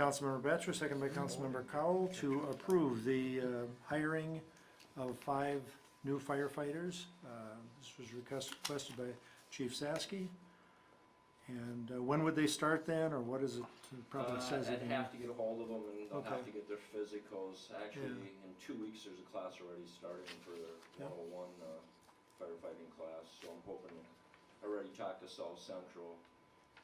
Councilmember Batchor, second by Councilmember Cowell, to approve the uh, hiring of five new firefighters. Uh, This was request- requested by Chief Saski. And uh, when would they start then, or what is it, probably Uh, says it I'd in have to get a hold of them and they'll have Okay. to get their physicals. Actually, in two weeks, there's a class already starting for their Yep. 101 uh, firefighting class, so I'm hoping, I already talked to South Central.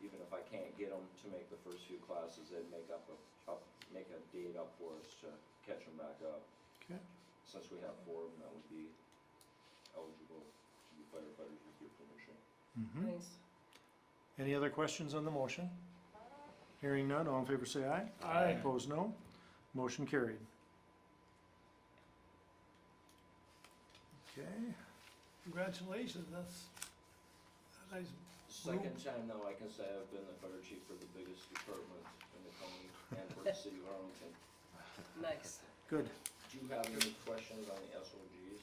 Even if I can't get them to make the first few classes, they'd make up a, up, make a date up for us to catch them back up. Okay. Since we have four of them, that would be eligible to be firefighters with your permission. Mhm. Nice. Any other questions on the motion? Hearing none, all in favor say aye. Aye. Opposed, no. Motion carried. Okay, Congratulations, that's, that is, Second time now, I can say I've been the fire chief for the biggest department in the county and for the city of Arlington. Nice. good. Do you have any questions on the SOGs?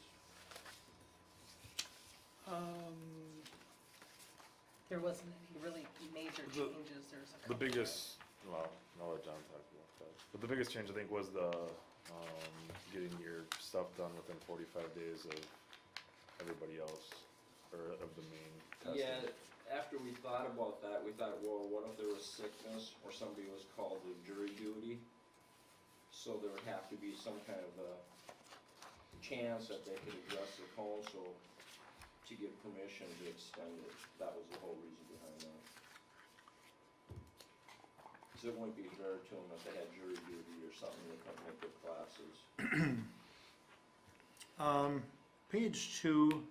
Um, there wasn't any really major The- changes, there's a The couple. biggest, well, I'll let John talk about that, but the biggest change I think was the, um, getting your stuff done within forty-five days of everybody else, or of the main testing. Yeah, after we thought about that, we thought, well, what if there was sickness or somebody was called to jury duty? So there would have to be some kind of a chance that they could address the council to give permission to extend it. That was the whole reason behind that. Cause it wouldn't be fair to them if they had jury duty or something, they couldn't make their classes. Um, page two,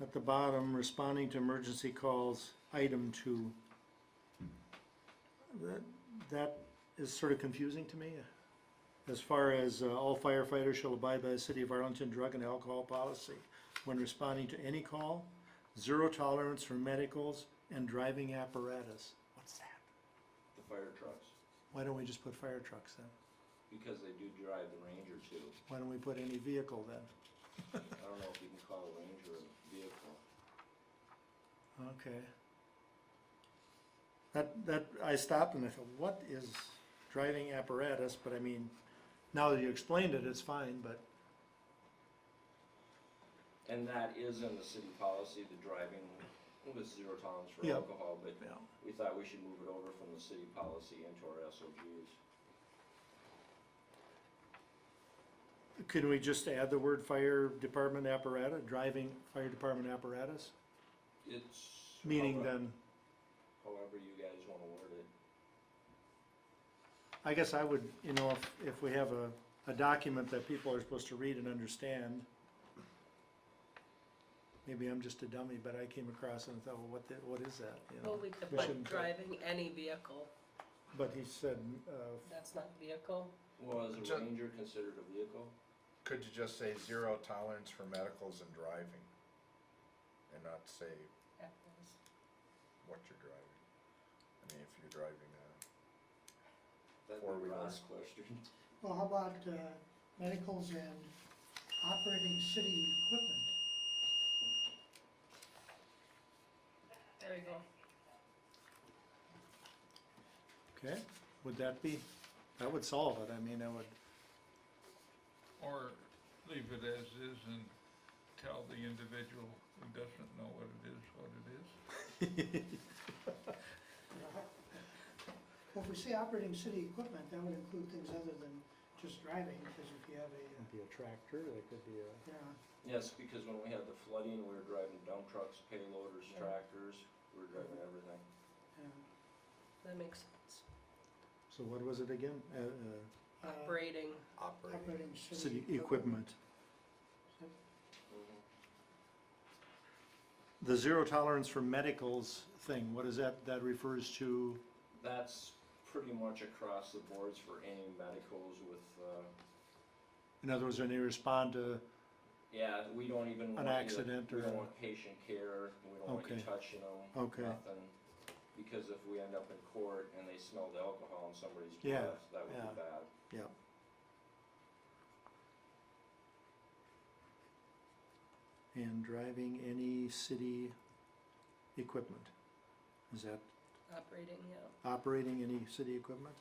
at the bottom, responding to emergency calls, item two. That, that is sort of confusing to me. As far as, uh, all firefighters shall abide by the city of Arlington drug and alcohol policy when responding to any call, zero tolerance for medicals and driving apparatus. What's that? The fire trucks, Why don't we just put fire trucks then? because they do drive the Ranger too. Why don't we put any vehicle then? I don't know if you can call a Ranger a vehicle. Okay. That, that, I stopped and I thought, what is driving apparatus, but I mean, now that you explained it, it's fine, but, And that is in the city policy, the driving with zero tolerance for Yeah. alcohol, but you know. we thought we should move it over from the city policy into our SOGs. Can we just add the word fire department apparatus, driving fire department apparatus? It's. Meaning however- then, However you guys wanna word it. I guess I would, you know, if, if we have a, a document that people are supposed to read and understand, maybe I'm just a dummy, but I came across it and thought, well, what, the- what is that, you know? Well, we could We put shouldn't- driving any vehicle, But he said, uh, that's not vehicle, Well, is a Ju- Ranger considered a vehicle? Could you just say zero tolerance for medicals and driving? And not say apples. what you're driving? I mean, if you're driving a, That'd Or be we Ross' question. Well, how about uh, medicals and operating city equipment? There you go. Okay, would that be, that would solve it, I mean, that would, or leave it as is and tell the individual who doesn't know what it is, what it is. Well, if we say operating city equipment, that would include things other than just driving, because if you have a, uh, could be a tractor, that could be a. you know, Yes, because when we had the flooding, we were driving dump trucks, payloaders, Yeah. tractors, we were driving everything. uh, That makes sense. So what was it again? Uh, uh, uh, Operating, operating. Operating city equipment. Mm-hmm. Mhm. The zero tolerance for medicals thing, what is that, that refers to, That's pretty much across the boards for any medicals with, uh, in other words, when they respond to, Yeah, we don't even. want you- accident We or- don't want patient care, we don't want you Okay. touching them, Okay. nothing. Because if we end up in court and they smelled alcohol in somebody's Yeah, breath, that would yeah. be bad. yeah. And driving any city equipment, is that operating, yeah. operating any city equipment?